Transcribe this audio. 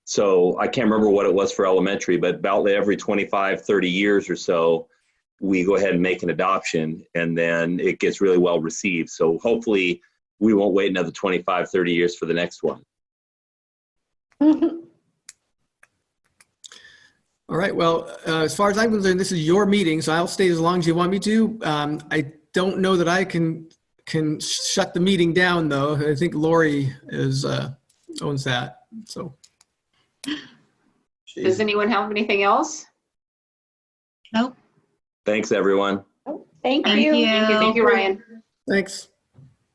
So I can't remember what it was for elementary, but about every 25, 30 years or so, we go ahead and make an adoption and then it gets really well received. So hopefully we won't wait another 25, 30 years for the next one. All right, well, uh, as far as I'm concerned, this is your meeting, so I'll stay as long as you want me to. Um, I don't know that I can, can shut the meeting down, though. I think Lori is, uh, owns that, so. Does anyone have anything else? Thanks, everyone. Thank Thank you, thank you, Ryan. Thanks.